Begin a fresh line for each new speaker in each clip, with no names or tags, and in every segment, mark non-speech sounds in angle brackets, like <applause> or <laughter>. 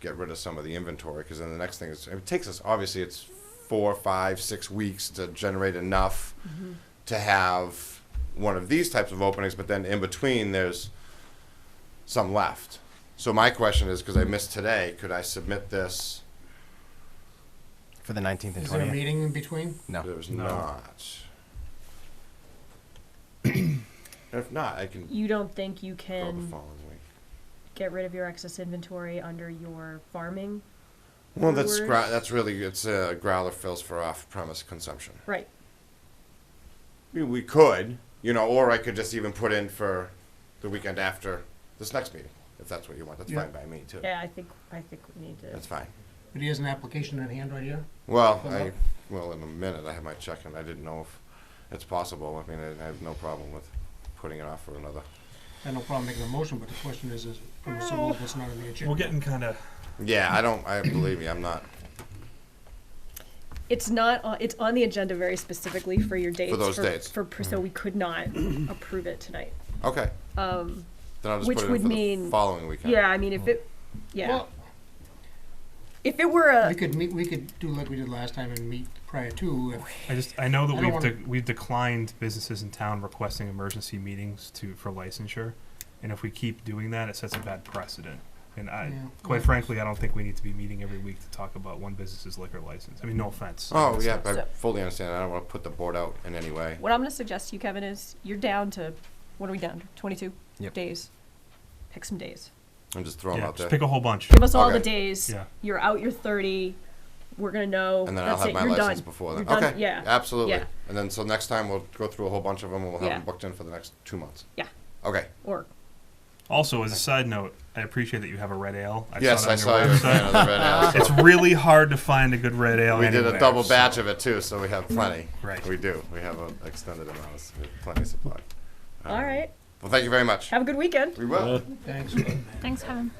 get rid of some of the inventory because then the next thing is it takes us obviously it's four, five, six weeks to generate enough to have one of these types of openings, but then in between there's some left. So my question is because I missed today, could I submit this?
for the 19th and
Is there a
20th.
meeting in between?
No.
There's not. if not, I can
You don't think you
go the
can
following week.
get rid of your excess inventory under your farming?
Well, that's
Brewers?
gra- that's really it's uh, growler fills for off-premise consumption.
Right.
I mean, we could, you know, or I could just even put in for the weekend after this next meeting, if that's what you want. That's
Yeah.
fine by me too.
Yeah, I think, I think we need to.
That's fine.
But he has an application in hand right here?
Well,
Well,
I
no.
well in a minute. I have my check, and I didn't know if it's possible. I mean, I I have no problem with putting it off for another.
I have no problem making a motion, but the question is, is I'm assuming that it's not on the agenda.
We're getting kind of
Yeah, I don't. I <coughs> believe me. I'm not
It's not, on- it's on the agenda very specifically for your dates.
those dates. Mm-hmm.
For, pr- so we
<clears throat>
could not approve it tonight.
okay.
Um,
Then I'll just
Which
put it in
would
for the
mean-
following weekend.
yeah, I mean, if it, yeah,
Well,
if it were
we
a,
could meet, we could do like we did last time and meet prior to, if-
I just I know that
I don't
we've
wanna-
de- we've declined businesses in town requesting emergency meetings to for licensure, and if we keep doing that, it sets a bad precedent. And I,
Yeah.
quite frankly, I don't think we need to be meeting every week to talk about one business's liquor license. I mean, no offense.
Oh yeah, I
So-
fully understand. I don't want to put the board out in any way.
what I'm gonna suggest to you, Kevin, is you're down to, what are we down to, twenty-two
Yep.
days? Pick some days.
I'm just throwing
Yeah,
out
just
there.
pick a whole bunch.
Give us all the
Okay.
days.
Yeah.
You're out your 30. We're going to know.
and then
Oh, that's
I'll have
it.
my
You're
license
done.
before
You're
then.
done.
Okay.
Yeah.
Absolutely.
Yeah.
And then so next time we'll go through a whole bunch of them and we'll have
Yeah.
them booked in for the next two months.
Yeah.
Okay.
Or
Also, as a side note, I appreciate that you have a red ale. I
yes,
saw it
I
on
saw you.
your
were a fan
website.
of the red
<laughs>
ale. so
It's really hard to find a good red ale.
we did a
anywhere,
double
so-
batch of it too, so we have plenty.
Mm-hmm. Right.
We do. We have an extended amount. Of, we have plenty of supply. Um,
all right.
Well, thank you very much.
Have a good weekend.
We will.
thanks.
Thanks, Kevin.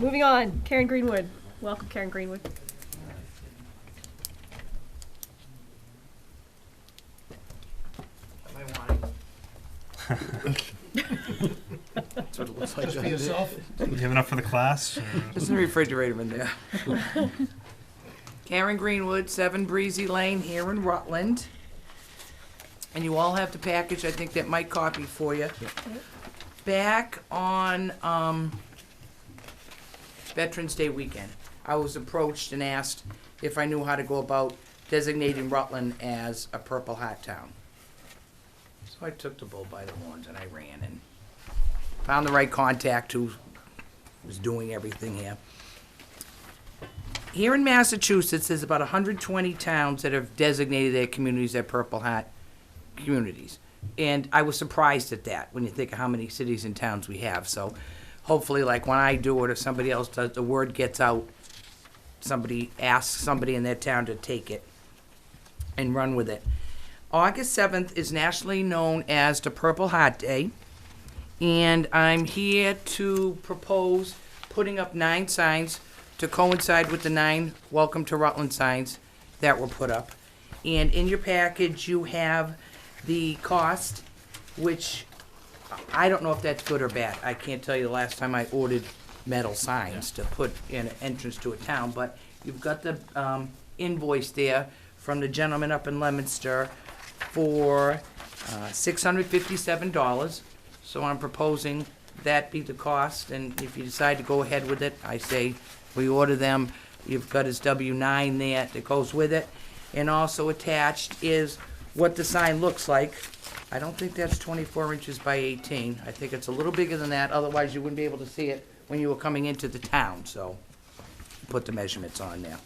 Moving on. Karen Greenwood. Welcome, Karen Greenwood.
That's what it looks like.
Just for yourself?
Do you have enough for the class? or-
There's a refrigerator in there. Karen Greenwood, Seven Breezy Lane here in Rutland. And you all have the package, I think that Mike copied for you. Back on, um, Veterans Day weekend, I was approached and asked if I knew how to go about designating Rutland as a Purple Heart Town. So I took the bull by the horns and I ran and found the right contact who was doing everything here. Here in Massachusetts, there's about 120 towns that have designated their communities their Purple Hat communities. And I was surprised at that when you think of how many cities and towns we have. So hopefully, like when I do it or somebody else does, the word gets out. Somebody asks somebody in their town to take it and run with it. August 7th is nationally known as the Purple Hat Day and I'm here to propose putting up nine signs to coincide with the nine Welcome to Rutland signs that were put up. And in your package, you have the cost, which I don't know if that's good or bad. I can't tell you the last time I ordered metal signs to put in an entrance to a town, but you've got the um, invoice there from the gentleman up in Leominster for uh, $657. So I'm proposing that be the cost, and if you decide to go ahead with it, I say we order them. You've got his W-9 there that goes with it. And also attached is what the sign looks like. I don't think that's 24 inches by 18. I think it's a little bigger than that, otherwise you wouldn't be able to see it when you were coming into the town, so put the measurements on there.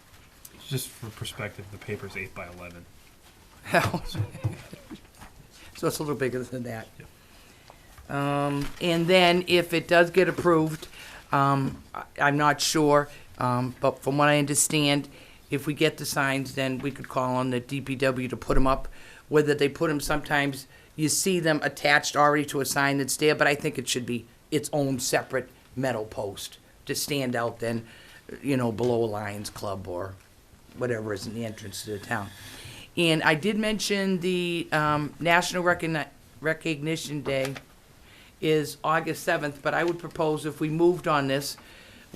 <laughs>
Just for perspective, the paper's eight by eleven.
So it's a little bigger than that. Um, and then if it does get approved, um, I, I'm not sure, um, but from what I understand, if we get the signs, then we could call on the DPW to put them up. Whether they put them, sometimes you see them attached already to a sign that's there, but I think it should be its own separate metal post to stand out then, you know, below a Lions Club or whatever is in the entrance to the town. And I did mention the um, National Recogni- Recognition Day is August 7th, but I would propose if we moved on this